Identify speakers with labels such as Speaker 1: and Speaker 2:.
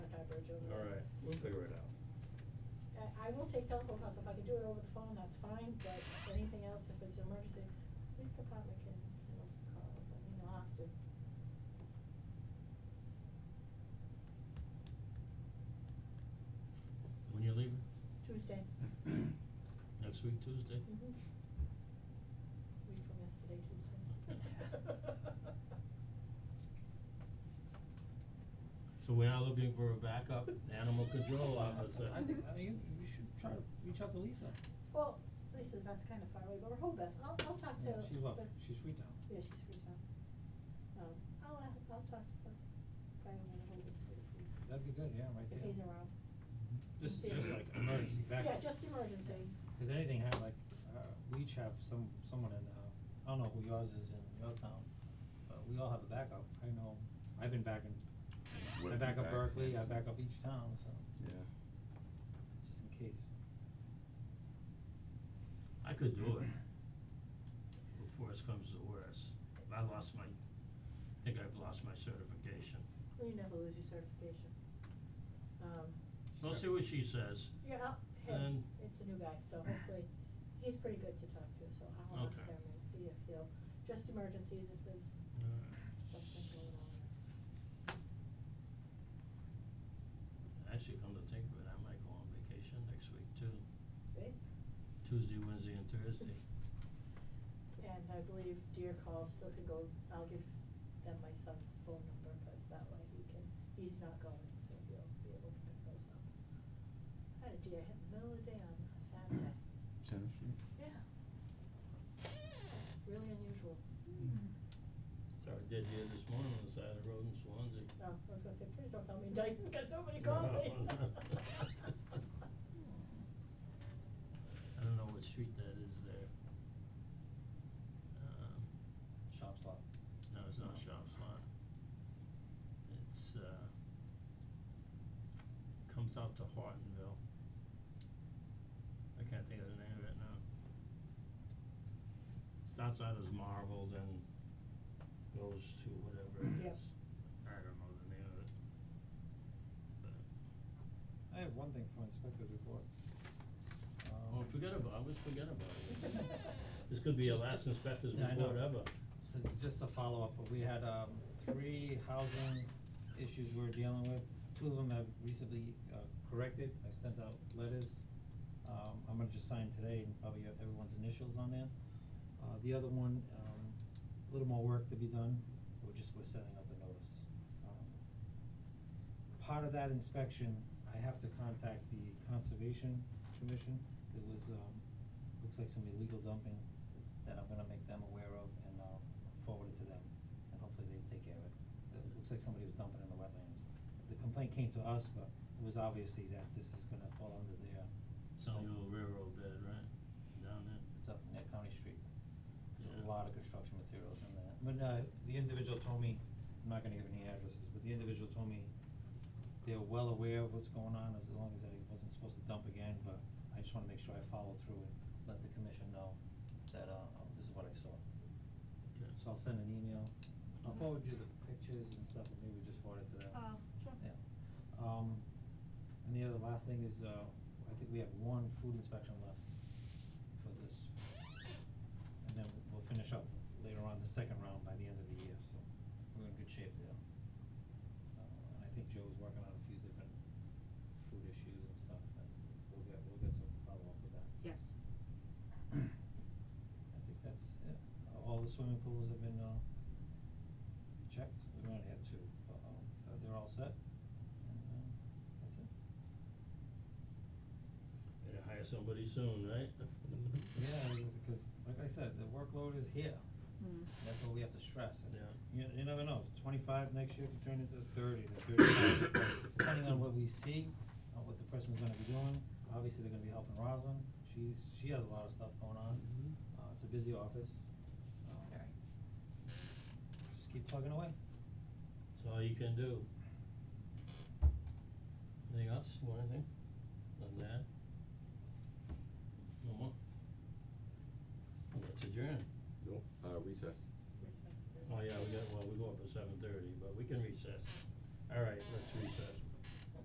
Speaker 1: We'll figure it out.
Speaker 2: I, I will take telephone calls, if I can do it over the phone, that's fine, but anything else, if it's an emergency, police department can handle some calls, I mean, they'll have to.
Speaker 3: When you leaving?
Speaker 2: Tuesday. Mm-hmm.
Speaker 3: Next week, Tuesday?
Speaker 4: Mm-hmm.
Speaker 2: Mhm. Week from yesterday, Tuesday.
Speaker 3: So we are looking for a backup animal control officer.
Speaker 4: I think, I mean, you should try to reach out to Lisa.
Speaker 2: Well, Lisa's, that's kind of far away, but Rehoboth, I'll, I'll talk to.
Speaker 4: Yeah, She's well,
Speaker 2: but-
Speaker 4: she's free now.
Speaker 2: Yeah, she's free town. Um, I'll, a- I'll talk to the guy over in Rehoboth, see if he's,
Speaker 4: That'd be good, yeah, right there.
Speaker 2: if he's around.
Speaker 4: Just,
Speaker 2: See if-
Speaker 4: just like emergency backup.
Speaker 2: Yeah, just emergency.
Speaker 4: Cause anything have like, uh, we each have some, someone in, uh, I don't know who yours is in your town, but we all have a backup. I know, I've been backing, I
Speaker 1: Would've
Speaker 4: back
Speaker 1: been
Speaker 4: up
Speaker 1: back
Speaker 4: Berkeley, I
Speaker 1: since.
Speaker 4: back up each town, so,
Speaker 1: Yeah.
Speaker 4: just in case.
Speaker 3: I could do it. Before worse comes to worse. I lost my, I think I've lost my certification.
Speaker 2: Well, you never lose your certification. Um,
Speaker 3: We'll see what she says.
Speaker 2: yeah, I'll, hey,
Speaker 3: And-
Speaker 2: it's a new guy, so hopefully, he's pretty good to talk to, so I'll ask
Speaker 3: Okay.
Speaker 2: him and see if he'll, just emergencies, if there's something going on.
Speaker 3: Actually, come to think of it, I might go on vacation next week too.
Speaker 2: See?
Speaker 3: Tuesday, Wednesday and Thursday.
Speaker 2: And I believe deer call still can go, I'll give them my son's phone number, cause that way he can, he's not going, so he'll be able to pick those up. I had a deer hit in the middle of the day on a Saturday,
Speaker 1: Center Street?
Speaker 2: yeah. Really unusual.
Speaker 3: So I did here this morning on the side of the road in Swansea.
Speaker 4: Oh.
Speaker 2: No, I was gonna say, please don't tell me in Dayton, because nobody called me.
Speaker 3: I don't know what street that is there. Um,
Speaker 4: Shop stop.
Speaker 3: no, it's not Shop's Lot. It's, uh, comes out to Hortonville. I can't think of the name of it now. Starts out as Marvel, then goes to whatever it
Speaker 2: Yep.
Speaker 3: is. I don't know the name of it. But,
Speaker 4: I have one thing for inspector's reports.
Speaker 3: oh,
Speaker 4: Um,
Speaker 3: forget about, I always forget about it. This could be your
Speaker 4: Just-
Speaker 3: last inspector's
Speaker 4: Yeah, I
Speaker 3: report
Speaker 4: know.
Speaker 3: ever.
Speaker 4: So just to follow up, we had um three housing issues we're dealing with, two of them have recently uh corrected, I've sent out letters. Um I'm gonna just sign today and probably have everyone's initials on there. Uh the other one, um a little more work to be done, we're just, we're sending out the notice. Um, Part of that inspection, I have to contact the conservation commission, there was um looks like some illegal dumping that I'm gonna make them aware of and uh forward it to them, and hopefully they take care of it. It looks like somebody was dumping in the wetlands. The complaint came to us, but it was obviously that this is gonna fall under their
Speaker 3: It's on
Speaker 4: scope.
Speaker 3: the old railroad bed, right? Down there.
Speaker 4: It's up Net County Street. There's
Speaker 3: Yeah.
Speaker 4: a lot of construction materials in that. But uh the individual told me, I'm not gonna give any addresses, but the individual told me they're well aware of what's going on as long as I wasn't supposed to dump again, but I just wanna make sure I follow through and let the commission know that uh oh, this is what I saw.
Speaker 3: Okay.
Speaker 4: So I'll send an email. I'll forward you the pictures and stuff and maybe just forward it to them.
Speaker 2: Oh, sure.
Speaker 4: Yeah. Um and the other last thing is uh I think we have one food inspection left for this. And then we'll finish up later on the second round by the end of the year, so we're in good shape there. Uh and I think Joe's working on a few different food issues and stuff and we'll get we'll get some follow up with that.
Speaker 5: Yes.
Speaker 4: I think that's it. Uh, All the swimming pools have been, uh, checked. We might have two, but, um, uh, they're all set. And, um, that's it.
Speaker 3: Better hire somebody soon, right?
Speaker 4: Yeah, because like I said, the workload is here.
Speaker 2: Hmm.
Speaker 5: Mm.
Speaker 4: That's what we have to stress. And
Speaker 3: Yeah.
Speaker 4: You, you never know. Twenty-five next year could turn into thirty to thirty-five, depending on what we see, uh, what the person's gonna be doing. Obviously, they're gonna be helping Roslyn. She's, she has a lot of stuff going on.
Speaker 3: Mhm.
Speaker 4: Uh, it's a busy office. Um,
Speaker 5: Very.
Speaker 4: Just keep plugging away.
Speaker 3: That's all you can do. Anything else, want anything? Nothing to add? No more? Let's adjourn.
Speaker 6: Nope, uh, recess.
Speaker 2: Where's my-
Speaker 3: Oh yeah, we got, well, we go up at seven thirty, but we can recess. Alright, let's recess.